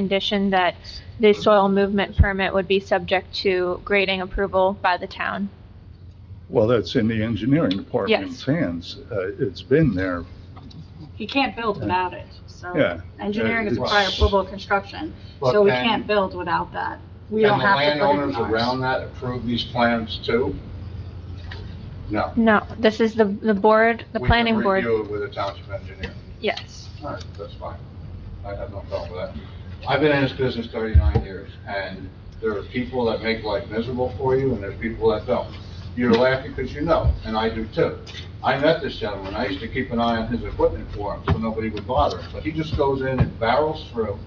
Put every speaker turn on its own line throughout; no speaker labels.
condition that the soil movement permit would be subject to grading approval by the town.
Well, that's in the engineering department's
Yes.
hands. Uh, It's been there,
He can't build without it, so
yeah.
engineering is
It's-
prior approval of construction,
But
so we
can-
can't build without that. We
Can
don't
the
have to put it
landowners
in ours.
around that approve these plans too? No.
No, this is the, the board, the
We can
planning board,
Review it with a township engineer.
yes.
All right, that's fine. I have no problem with that. I've been in this business thirty-nine years, and there are people that make life miserable for you, and there's people that don't. You're laughing because you know, and I do too. I met this gentleman, I used to keep an eye on his equipment for him, so nobody would bother him, but he just goes in and barrels through,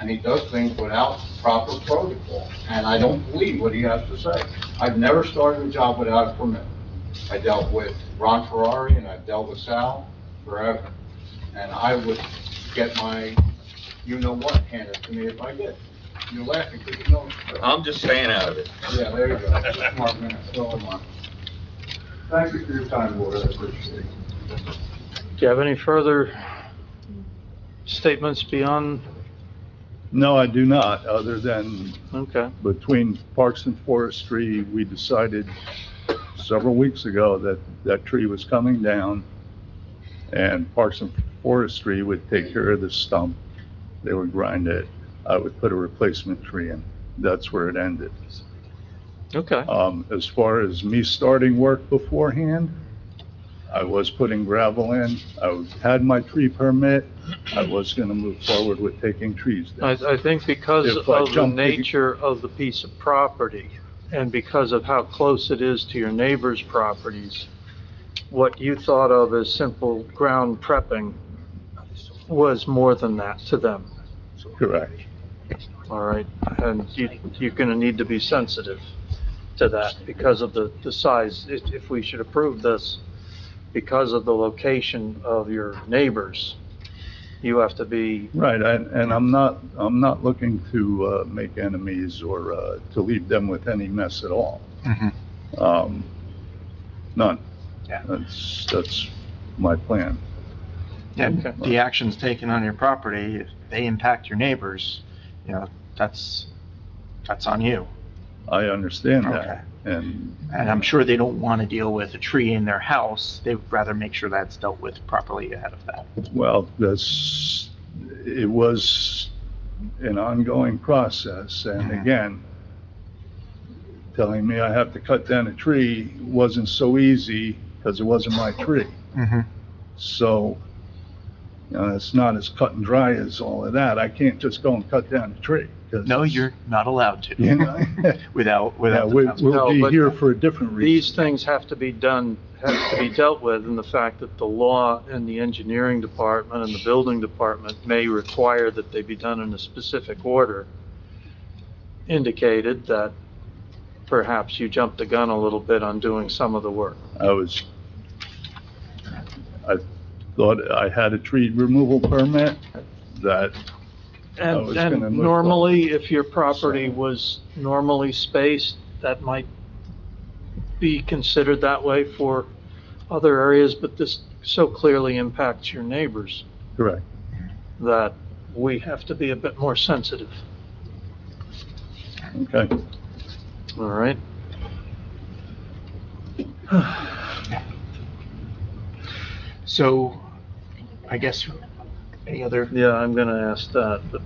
and he does things without proper protocol, and I don't believe what he has to say. I've never started a job without a permit. I dealt with Ron Ferrari, and I've dealt with Sal forever, and I would get my, you-know-what handed to me if I did. You're laughing because you know it's true.
I'm just staying out of it.
Yeah, there you go. It's a Smart man, so am I. Thank you for your time, Board, I appreciate it.
Do you have any further statements beyond,
No, I do not, other than
okay,
between Parks and Forestry, we decided several weeks ago that that tree was coming down, and Parks and Forestry would take care of the stump. They would grind it. I would put a replacement tree in. That's where it ended.
okay.
Um, as far as me starting work beforehand, I was putting gravel in, I had my tree permit, I was gonna move forward with taking trees
I,
down.
I think because
If I
of the
jump-
nature of the piece of property and because of how close it is to your neighbor's properties, what you thought of as simple ground prepping was more than that to them,
Correct.
all right? And you, you're gonna need to be sensitive to that because of the, the size. If, if we should approve this, because of the location of your neighbors, you have to be
Right, and, and I'm not, I'm not looking to, uh, make enemies or, uh, to leave them with any mess at all.
Mm-hmm.
Um, none.
Yeah.
That's, that's my plan.
And
Okay.
the actions taken on your property, if they impact your neighbors, you know, that's, that's on you.
I understand
Okay.
that, and
And I'm sure they don't want to deal with a tree in their house. They would rather make sure that's dealt with properly ahead of that.
Well, that's, it was an ongoing process, and
Mhm.
again, telling me I have to cut down a tree wasn't so easy, because it wasn't my tree. Mm-hmm. So, you know, it's not as cut and dry as all of that. I can't just go and cut down a tree. 'cause
No,
it's-
you're not allowed
You
to
know,
without,
Yeah,
without. the
we-
town's-
we'll
No,
be
but
here for a different
these
reason.
things have to be done, have to be dealt with, and the fact that the law and the engineering department and the building department may require that they be done in a specific order indicated that perhaps you jumped the gun a little bit on doing some of the work.
I was, I thought I had a tree removal permit that I
And,
was
and
gonna look
normally, if your property
So-
was normally spaced, that might be considered that way for other areas, but this so clearly impacts your neighbors.
Correct.
that we have to be a bit more sensitive,
Okay.
all right?
So I guess any other,
Yeah, I'm gonna ask that, but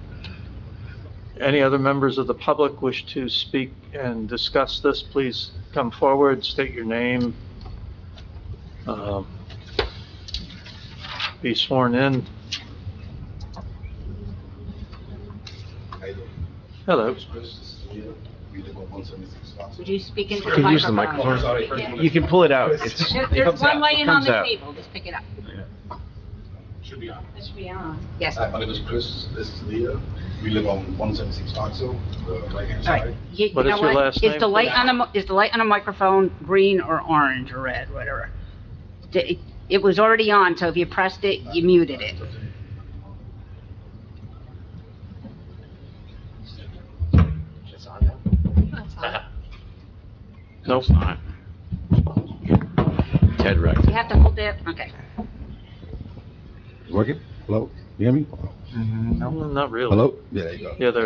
any other members of the public wish to speak and discuss this, please come forward, state your name. um, Be sworn in. Hello.
Would you speak into
You can use the microphone. You can pull it out. It's,
There-
it
There's
comes
one
out, it
laying on
comes
the
out.
table, just pick it up.
Should be on.
That should be on. Yes.
Hi, my name is Chris, this is Leah, we live on one seventy-six Oxo, the right-hand
All right.
side.
You- you
What is
know
your last
Is
name?
the light on a, mo- is the light on a microphone green or orange or red, whatever? D- It, it was already on, so if you pressed it, you muted it.
Nope.
Ted Rex.
You have to hold it, okay.
Working? Hello, you hear me?
Mhm, nope.
Not really.
Hello? Yeah, there you go.
Yeah, there